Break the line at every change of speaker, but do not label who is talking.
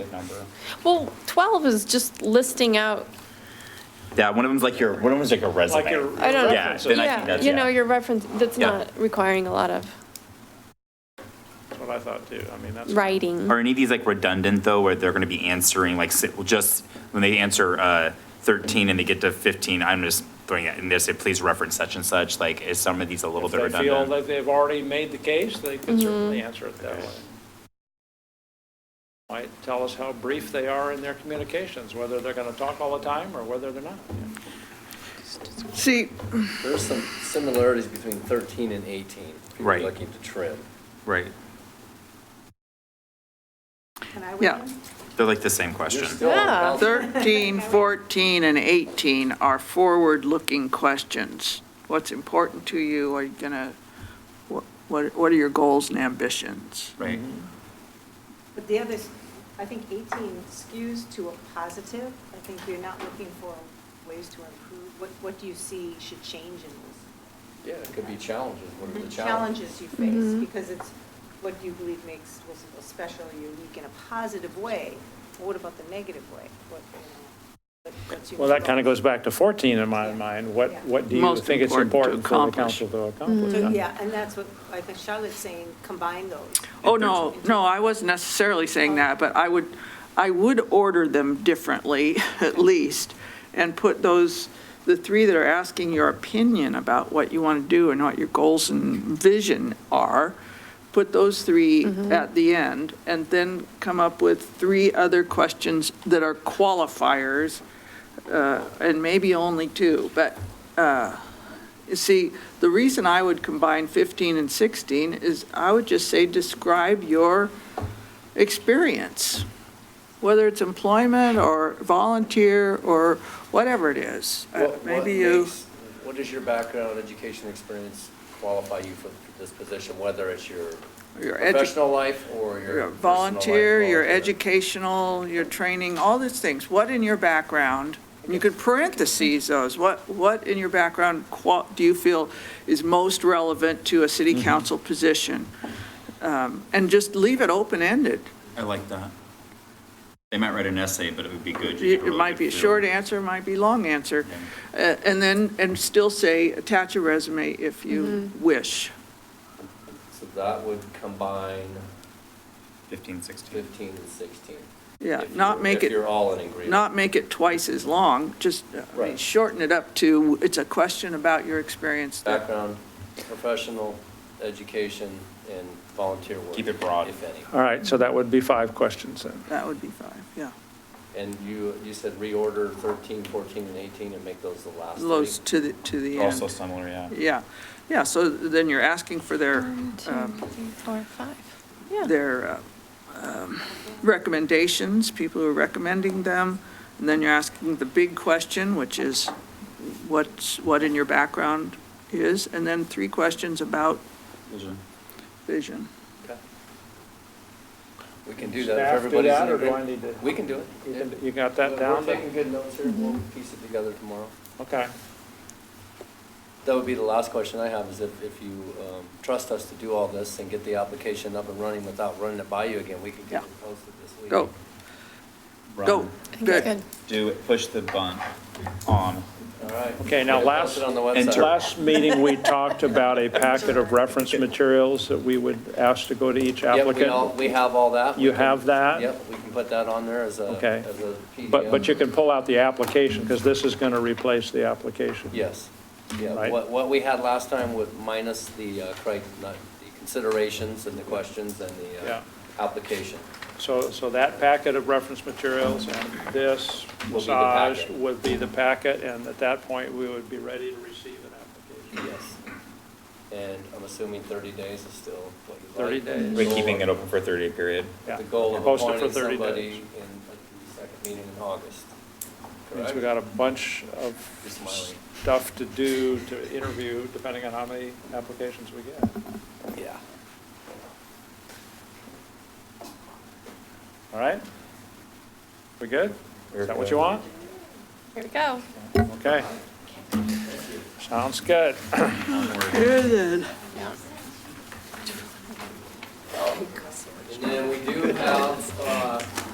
number.
Well, 12 is just listing out,
Yeah, one of them's like your, one of them's like a resume.
Like your.
I don't know.
Yeah,
references.
then I think
yeah,
that's,
you know,
yeah.
your reference, that's
Yeah.
not requiring a lot of
That's what I thought too. I mean, that's.
writing.
Are any of these like redundant though, where they're going to be answering like, si- well, just when they answer uh, 13 and they get to 15, I'm just throwing it, and they say, please reference such and such, like, is some of these a little
If
bit
they feel
redundant?
that they've already made the case, they can
Mm-hmm.
certainly answer it that way. Might tell us how brief they are in their communications, whether they're going to talk all the time or whether they're not.
See,
There's some similarities between 13 and 18. if you're
Right.
Looking to trim.
Right,
yeah,
they're like the same
You're
question.
still on
Yeah.
balance.
13, 14, and 18 are forward-looking questions. What's important to you? Are you gonna, what, what what are your goals and ambitions?
Right,
But the other, I think 18 skews to a positive. I think you're not looking for ways to improve. What, what do you see should change in this?
Yeah, it could be challenges. What are the challenges?
Challenges you face, because it's what do you believe makes Wilsonville special, unique in a positive way. What about the negative way? What, you know, what- what's your-
Well, that kind of goes back to 14 in my mind. What, what do you
Most
think it's important
important to
for the
accomplish.
council to
Mm-hmm.
accomplish?
So, Yeah, and that's what, I think Charlotte's saying, combine those.
Oh, no, no, I wasn't necessarily saying that, but I would, I would order them differently, at least, and put those, the three that are asking your opinion about what you want to do and what your goals and vision are, put those three at the end, and then come up with three other questions that are qualifiers, uh, and maybe only two, but, uh, you see, the reason I would combine 15 and 16 is I would just say, describe your experience, whether it's employment or volunteer or whatever it is. Uh,
What- what
Maybe you,
makes- What does your background, education, experience qualify you for this position, whether it's your
your edu-
professional life
your
or your personal life,
volunteer, your educational, your training, all these things. What in your background, you could parentheses those, what, what in your background qual, do you feel is most relevant to a city
Mm-hmm.
council position? Um, And just leave it open-ended.
I like that. They might write an essay, but it would be good.
It it might be a short answer, it might be a long answer. Uh, And then, and still say, attach a resume if you wish.
So that would combine
15, 16.
15 and 16.
Yeah,
If
not
you're-
make
If
it,
you're all in agreement.
not make it twice as long, just uh, I mean,
Right.
shorten it up to, it's a question about your experience. that-
Background, professional, education, and volunteer work.
Keep it broad.
If any.
All right, so that would be five questions then.
That would be five, yeah.
And you, you said reorder 13, 14, and 18 and make those the last three?
Those to the, to the
Also
end.
similar, yeah.
Yeah, yeah, so then you're asking for their,
One, two,
um,
three, four, five. Yeah.
their uh, um, recommendations, people who are recommending them, and then you're asking the big question, which is what's, what in your background is, and then three questions about
Vision.
vision.
Okay. We can do that
Staff
if
do
everybody's
that,
in
or do I
agreement.
need to?
We can do it.
You
yeah.
can- You got that
We're
down?
taking good notes here, we'll piece it together tomorrow.
Okay.
That would be the last question I have, is if, if you um, trust us to do all this and get the application up and running without running it by you again, we could get
Yeah.
it posted this week.
Go, go,
Run,
I think it's
good.
Do it, push the button on.
All right.
Okay, now
Get it
last-
posted on the
and
website.
Sure.
Last meeting, we talked about a packet of reference materials that we would ask to go to each
Yep, we all-
applicant.
We have all that. We
You
can-
have that?
Yep, we can put that on there as a,
Okay.
as a PDF.
But, but you can pull out the application, because this is going to replace the application.
Yes, yeah,
Right.
what, what we had last time with minus the, uh, cri- not, the considerations and the questions and the, uh, application.
So, so that packet of reference materials and this
Will be the
massage
packet.
would be the packet, and at that point, we would be ready to receive an application.
Yes. And I'm assuming thirty days is still what you like.
30 days.
We're keeping it open for a 30-day period.
Yeah.
The goal of
Post it for
appointing
30
somebody
days.
in the second meeting in August.
Means
Correct?
we got a bunch of
You're smiling.
stuff to do, to interview, depending on how many applications we get.
Yeah.
All right? We good? Is that what you want?
Here we go.
Okay. Sounds good.
Good then.
And then we do have, uh,